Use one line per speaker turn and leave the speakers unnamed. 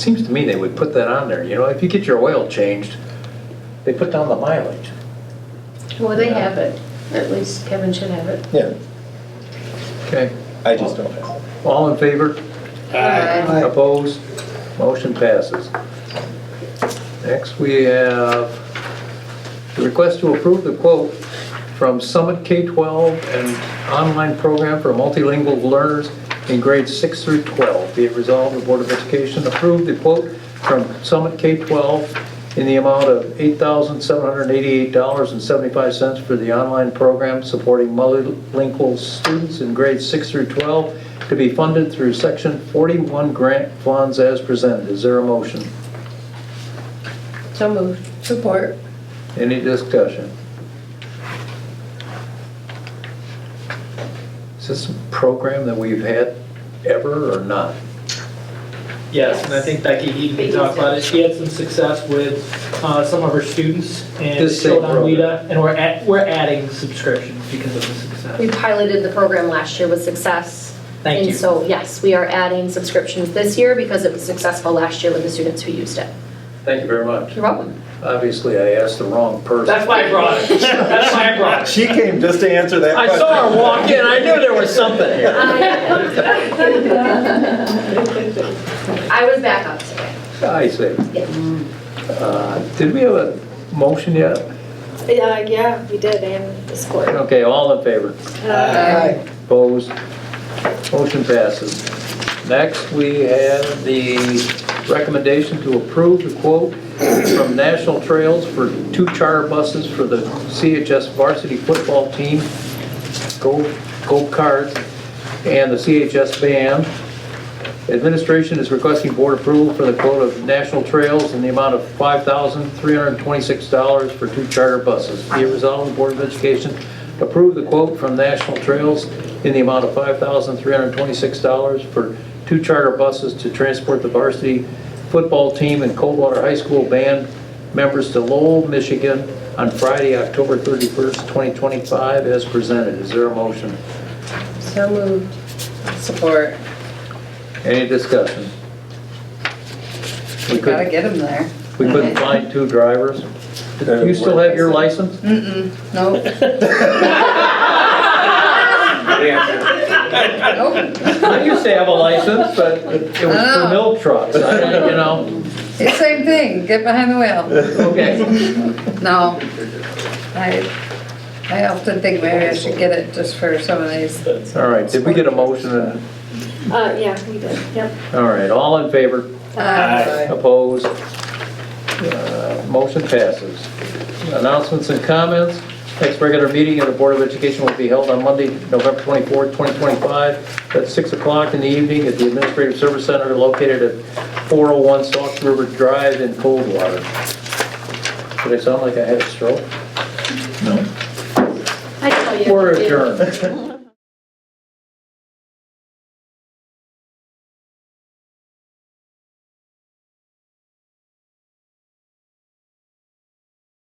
Seems to me they would put that on there, you know, if you get your oil changed, they put down the mileage.
Well, they have it, or at least Kevin should have it.
Yeah,
Okay.
I just don't have.
All in favor?
Aye.
Opposed? Motion passes. Next, we have the request to approve the quote from Summit K-12 and online program for multilingual learners in grades 6 through 12. Be it resolved, the Board of Education approved the quote from Summit K-12 in the amount of $8,788.75 for the online program supporting multilingual students in grades 6 through 12 to be funded through Section 41 grant funds as presented. Is there a motion?
So moved. Support.
Any discussion? Is this a program that we've had ever or not?
Yes, and I think Becky Heaton talked about it. She had some success with uh, some of her students and
This same
showed on
program.
WIDA, and we're at, we're adding subscriptions because of the
We
success.
piloted the program last year with success.
Thank you.
And so, yes, we are adding subscriptions this year because it was successful last year with the students who used it.
Thank you very much.
You're welcome.
Obviously, I asked the wrong person.
That's why I brought it. That's why I brought it.
She came just to answer that
I
question.
saw her walk in, I knew there was something here.
I was back up today.
I see.
Yeah.
Uh, Did we have a motion yet?
Yeah, yeah, we did, and the score.
Okay, all in favor?
Aye.
Opposed? Motion passes. Next, we have the recommendation to approve the quote from National Trails for two charter buses for the CHS varsity football team, go go Cards, and the CHS band. Administration is requesting board approval for the quote of National Trails in the amount of $5,326 for two charter buses. Be it resolved, the Board of Education approve the quote from National Trails in the amount of $5,326 for two charter buses to transport the varsity football team and Coldwater High School band members to Lowell, Michigan on Friday, October 31st, 2025, as presented. Is there a motion?
So moved. Support.
Any discussion? We
We
couldn't
gotta get them there.
We couldn't find two drivers. Do you still have your license?
Nope, nope.
I used to have a license, but it was
Oh.
for milk trucks, I- you know,
It's same thing, get behind the wheel.
okay.
No, I, I often think maybe I should get it just for some of these.
All right, did we get a motion?
Uh, yeah, we did, yep.
All right, all in favor?
Uh,
Opposed? Uh, Motion passes. Announcements and comments. Next regular meeting of the Board of Education will be held on Monday, November 24, 2025, at 6 o'clock in the evening at the Administrative Service Center located at 401 Sauk River Drive in Coldwater. Did I sound like I had a stroke?
I tell you.
We're adjourned.